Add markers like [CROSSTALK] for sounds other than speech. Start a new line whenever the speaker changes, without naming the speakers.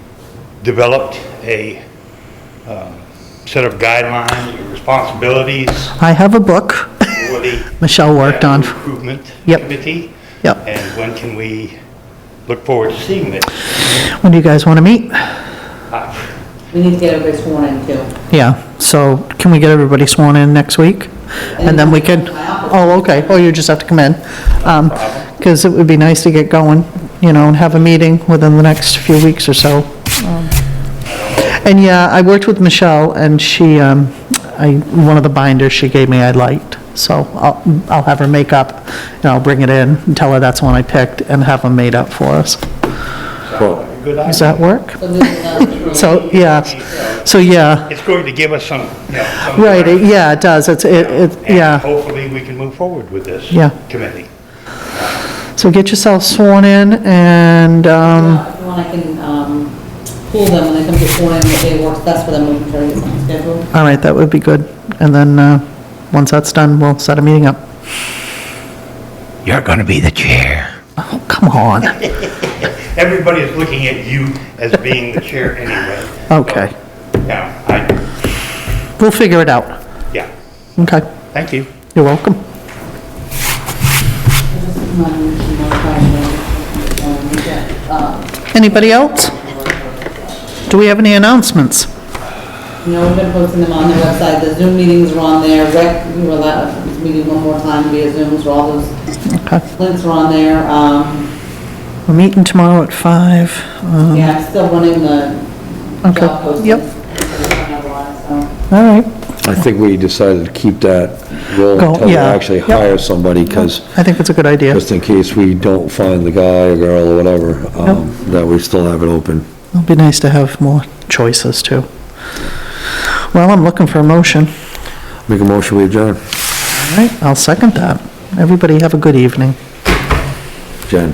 developed a um, set of guidelines, your responsibilities
I have a book [LAUGHS]
for the.
Michelle worked on.
Capital Improvement
Yep.
Committee.
Yep.
And when can we look forward to seeing this?
When do you guys want to meet?
We need to get everybody sworn in too.
Yeah, so can we get everybody sworn in next week? And then we could, oh, okay, oh, you just have to come in. Because it would be nice to get going, you know, and have a meeting within the next few weeks or so. Um, And yeah, I worked with Michelle, and she, um, I, one of the binders she gave me I liked, so I'll, I'll have her make up, and I'll bring it in, and tell her that's the one I picked, and have them made up for us.
A Good idea.
Does that work?
So this is uh,
[LAUGHS]
not-
So, yeah, so, yeah,
It's going to give us some, you know, some.
right, it- yeah, it does, it's, it, it, yeah.
And hopefully, we can move forward with this.
Yeah.
Committee.
So get yourself sworn in and, um,
If you want, I can, um, pull them when they come to sworn in, if they work, that's for them, we can try to get something scheduled.
all right, that would be good. And then, uh, once that's done, we'll set a meeting up.
You're going to be the chair.
Oh, come on.
Everybody is looking at you as being the chair anyway.
Okay.
Yeah, I,
We'll figure it out.
yeah,
Okay,
thank you.
you're welcome.
This is my motion, my question. Um, we got, uh,
Anybody else? Do we have any announcements?
You know, we've been posting them on the website, the Zoom meetings are on there, rec, we were allowed, this meeting one more time via Zoom, so all those
Okay,
links are on there. Um,
we're meeting tomorrow at five. Um,
Yeah, I'm still running the
Okay,
job postings.
yep.
Yep.
All right,
I think we decided to keep that rolling
Go-
until we
yeah,
actually
yep.
hire somebody, because
I think it's a good idea.
just in case we don't find the guy or girl or whatever, um, that we still have it open.
It'll be nice to have more choices too. Well, I'm looking for a motion.
Make a motion, we adjourn.
All right, I'll second that. Everybody have a good evening.